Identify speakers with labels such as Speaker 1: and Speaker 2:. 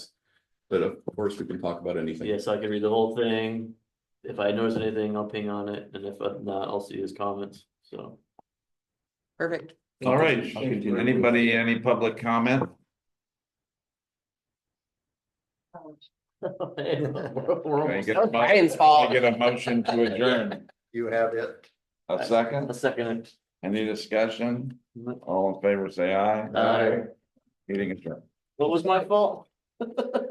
Speaker 1: But of course, we can talk about anything.
Speaker 2: Yeah, so I can read the whole thing. If I notice anything, I'll ping on it, and if not, I'll see his comments, so.
Speaker 3: Perfect.
Speaker 4: All right,
Speaker 5: I'll continue.
Speaker 4: anybody, any public comment? Can I
Speaker 2: A
Speaker 4: get a mo-
Speaker 3: Brian's
Speaker 4: can I
Speaker 3: fault.
Speaker 4: Get a motion to adjourn,
Speaker 5: You have it.
Speaker 4: a second,
Speaker 2: second.
Speaker 4: any discussion, all in favor, say aye.
Speaker 2: Aye.
Speaker 4: Meeting adjourned.
Speaker 2: What was my fault?